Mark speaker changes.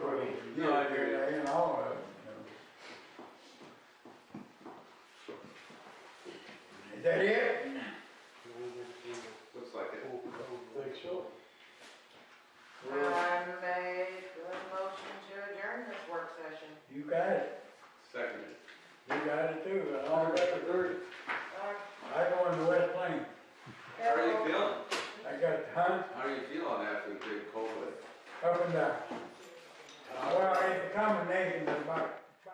Speaker 1: session.
Speaker 2: You got it,
Speaker 3: Seconded.
Speaker 2: you got it too, and all that.
Speaker 3: third.
Speaker 2: I go into West Plains,
Speaker 3: How are you feeling?
Speaker 2: I got hunts
Speaker 3: How do you feel on after the big cold?
Speaker 2: Uh, up and down. Well, it's a combination of about